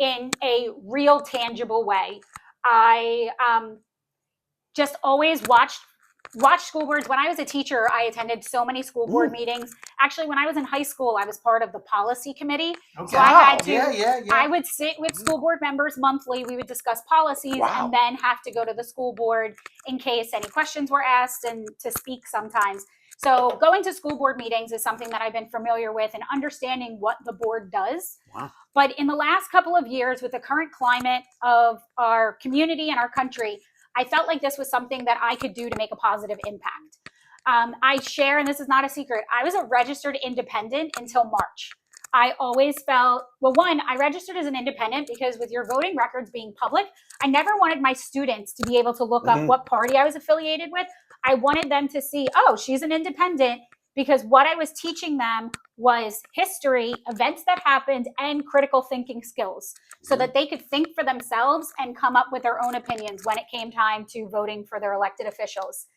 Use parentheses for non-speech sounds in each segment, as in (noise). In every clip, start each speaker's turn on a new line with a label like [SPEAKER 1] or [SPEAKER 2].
[SPEAKER 1] in a real tangible way. I um, just always watched watched school boards. When I was a teacher, I attended so many school board
[SPEAKER 2] Mm.
[SPEAKER 1] meetings. Actually, when I was in high school, I was part of the policy committee.
[SPEAKER 2] Okay.
[SPEAKER 1] So I had to-
[SPEAKER 2] yeah, yeah, yeah.
[SPEAKER 1] I would sit with school board members monthly. We would discuss policies
[SPEAKER 2] Wow.
[SPEAKER 1] and then have to go to the school board in case any questions were asked and to speak sometimes. So going to school board meetings is something that I've been familiar with and understanding what the board does.
[SPEAKER 2] Wow.
[SPEAKER 1] But in the last couple of years, with the current climate of our community and our country, I felt like this was something that I could do to make a positive impact. Um, I share, and this is not a secret, I was a registered independent until March. I always felt, well, one, I registered as an independent because with your voting records being public, I never wanted my students to be able to look
[SPEAKER 2] Mhm.
[SPEAKER 1] up what party I was affiliated with. I wanted them to see, oh, she's an independent because what I was teaching them was history, events that happened, and critical thinking skills so that they could think for themselves and come up with their own opinions when it came time to voting for their elected officials.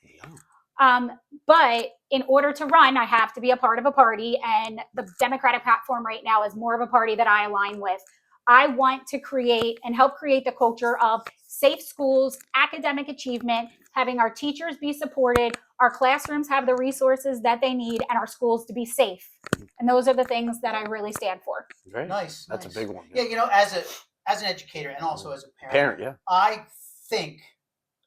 [SPEAKER 1] Um, but in order to run, I have to be a part of a party, and the Democratic platform right now is more of a party that I align with. I want to create and help create the culture of safe schools, academic achievement, having our teachers be supported, our classrooms have the resources that they need, and our schools to be safe. And those are the things that I really stand for.
[SPEAKER 3] Great.
[SPEAKER 2] nice.
[SPEAKER 3] That's
[SPEAKER 2] nice.
[SPEAKER 3] a big one.
[SPEAKER 2] Yeah, you know, as a as an educator and also as a
[SPEAKER 3] Parent,
[SPEAKER 2] parent,
[SPEAKER 3] yeah.
[SPEAKER 2] I think,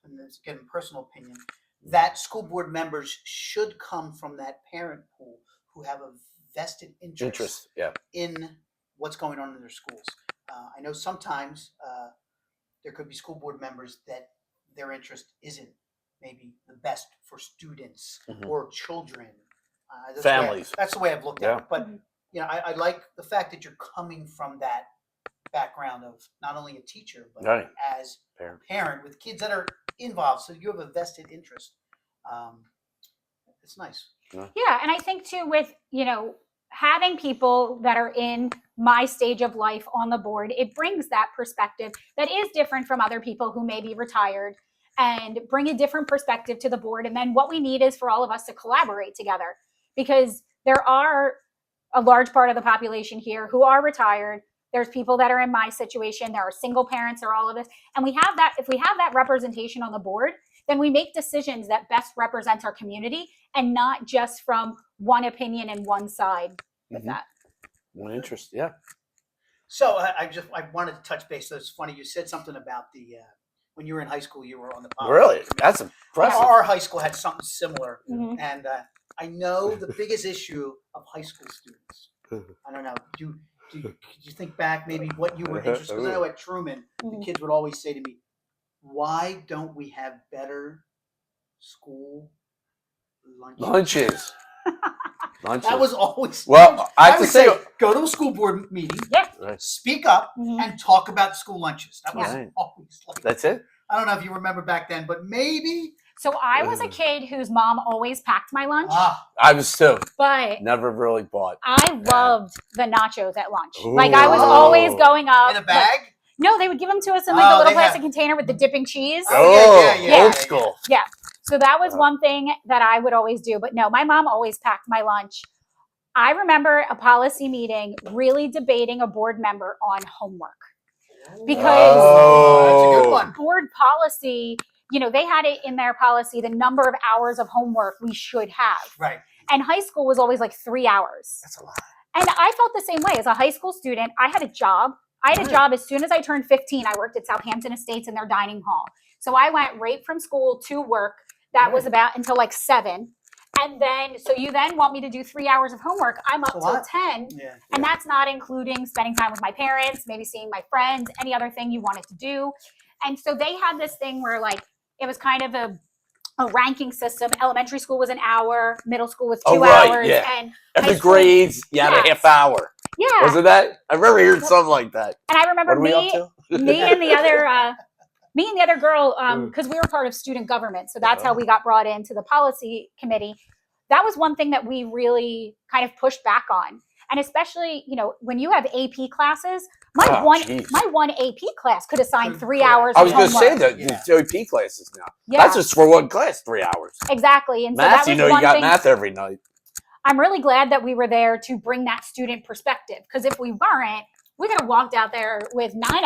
[SPEAKER 2] and this is again personal opinion, that school board members should come from that parent pool who have a vested interest,
[SPEAKER 3] Interest, yeah.
[SPEAKER 2] in what's going on in their schools. Uh, I know sometimes uh, there could be school board members that their interest isn't maybe the best for students
[SPEAKER 3] Mhm.
[SPEAKER 2] or children. Uh, that's the way I-
[SPEAKER 3] Families.
[SPEAKER 2] that's the way I've looked
[SPEAKER 3] Yeah.
[SPEAKER 2] at it. But
[SPEAKER 1] Mhm.
[SPEAKER 2] you know, I, I like the fact that you're coming from that background of not only a teacher but
[SPEAKER 3] Right.
[SPEAKER 2] as
[SPEAKER 3] Parent.
[SPEAKER 2] a parent with kids that are involved. So you have a vested interest. Um, it's nice.
[SPEAKER 1] Yeah, and I think too with, you know, having people that are in my stage of life on the board, it brings that perspective that is different from other people who may be retired and bring a different perspective to the board. And then what we need is for all of us to collaborate together because there are a large part of the population here who are retired. There's people that are in my situation. There are single parents or all of us. And we have that, if we have that representation on the board, then we make decisions that best represents our community and not just from one opinion and one side with
[SPEAKER 2] Mm-hmm.
[SPEAKER 3] Mhm.
[SPEAKER 1] that.
[SPEAKER 3] One interest, yeah.
[SPEAKER 2] So I, I just I wanted to touch base. So it's funny you said something about the uh, when you were in high school you were on the policy
[SPEAKER 3] Really?
[SPEAKER 2] committee.
[SPEAKER 3] That's impressive.
[SPEAKER 2] Our high school had something similar,
[SPEAKER 1] Mhm.
[SPEAKER 2] and uh, I know
[SPEAKER 3] (laughs)
[SPEAKER 2] the biggest issue of high school students. I don't know. Do do you, could you think back maybe what you
[SPEAKER 3] (laughs)
[SPEAKER 2] were interested? Because I know at Truman the
[SPEAKER 1] Mhm.
[SPEAKER 2] kids would always say to me, "Why don't we have better school lunches?"
[SPEAKER 1] (laughs)
[SPEAKER 3] Lunches. Lunches.
[SPEAKER 2] That was always (laughs)
[SPEAKER 3] Well, I have to
[SPEAKER 2] would
[SPEAKER 3] say,
[SPEAKER 2] go to a school board meeting,
[SPEAKER 1] Yeah.
[SPEAKER 3] Right.
[SPEAKER 2] speak up,
[SPEAKER 1] Mhm.
[SPEAKER 2] and talk about school lunches. That was
[SPEAKER 3] Right.
[SPEAKER 2] always like
[SPEAKER 3] that's it.
[SPEAKER 2] I don't know if you remember back then, but maybe
[SPEAKER 1] So I was a
[SPEAKER 3] Ugh.
[SPEAKER 1] kid whose mom always packed my lunch,
[SPEAKER 2] ah,
[SPEAKER 3] I was too.
[SPEAKER 1] but
[SPEAKER 3] Never really bought.
[SPEAKER 1] I
[SPEAKER 3] Yeah.
[SPEAKER 1] loved the nachos at lunch. Like I was
[SPEAKER 2] Ooh.
[SPEAKER 1] always going up.
[SPEAKER 2] in a
[SPEAKER 1] like-
[SPEAKER 2] bag.
[SPEAKER 1] no, they would give them to us in like a
[SPEAKER 2] Oh,
[SPEAKER 1] little
[SPEAKER 2] they have-
[SPEAKER 1] plastic container with the dipping cheese.
[SPEAKER 2] Oh, yeah, yeah, yeah, yeah, yeah.
[SPEAKER 3] old school.
[SPEAKER 1] So that was
[SPEAKER 3] Uh-huh.
[SPEAKER 1] one thing that I would always do. But no, my mom always packed my lunch. I remember a policy meeting really debating a board member on homework. Because-
[SPEAKER 2] Oh, that's a good one.
[SPEAKER 1] board policy, you know, they had it in their policy the number of hours of homework we should have.
[SPEAKER 2] Right,
[SPEAKER 1] And high school was always like three hours.
[SPEAKER 2] that's a lot.
[SPEAKER 1] And I felt the same way as a high school student. I had a job. I had a
[SPEAKER 2] Right.
[SPEAKER 1] job as soon as I turned 15. I worked at Southampton Estates in their dining hall. So I went right from school to work. That
[SPEAKER 2] Mm.
[SPEAKER 1] was about until like seven. And then, so you then want me to do three hours of homework. I'm up
[SPEAKER 2] That's a
[SPEAKER 1] till
[SPEAKER 2] lot.
[SPEAKER 1] 10.
[SPEAKER 2] Yeah,
[SPEAKER 1] And that's not including spending time with my parents, maybe seeing my friends, any other thing you wanted to do. And so they had this thing where like it was kind of a a ranking system. Elementary school was an hour, middle school was two
[SPEAKER 3] Oh, right,
[SPEAKER 1] hours,
[SPEAKER 3] yeah.
[SPEAKER 1] and
[SPEAKER 3] Every
[SPEAKER 1] High school.
[SPEAKER 3] grades, you had a
[SPEAKER 1] Yes.
[SPEAKER 3] half hour.
[SPEAKER 1] yeah.
[SPEAKER 3] Wasn't that? I remember hearing something like that.
[SPEAKER 1] and I remember
[SPEAKER 3] What are we
[SPEAKER 1] me,
[SPEAKER 3] up to? (laughs)
[SPEAKER 1] me and the other uh, me and the other girl because we were part of student government, so that's how
[SPEAKER 3] Uh-huh.
[SPEAKER 1] we got brought into the policy committee. That was one thing that we really kind of pushed back on, and especially you know when you have AP classes, my
[SPEAKER 3] Oh,
[SPEAKER 1] one
[SPEAKER 3] jeez.
[SPEAKER 1] my one AP class could assign
[SPEAKER 2] Could-
[SPEAKER 1] three
[SPEAKER 2] correct.
[SPEAKER 1] hours.
[SPEAKER 3] I
[SPEAKER 1] of
[SPEAKER 3] was going to say
[SPEAKER 1] homework.
[SPEAKER 3] that
[SPEAKER 2] Yeah.
[SPEAKER 3] the JP classes now.
[SPEAKER 1] Yeah,
[SPEAKER 3] That's just for one class, three hours.
[SPEAKER 1] exactly. And so
[SPEAKER 3] math,
[SPEAKER 1] that was
[SPEAKER 3] you know,
[SPEAKER 1] one
[SPEAKER 3] you got
[SPEAKER 1] thing.
[SPEAKER 3] math every night.
[SPEAKER 1] I'm really glad that we were there to bring that student perspective because if we weren't, we could have walked out there with nine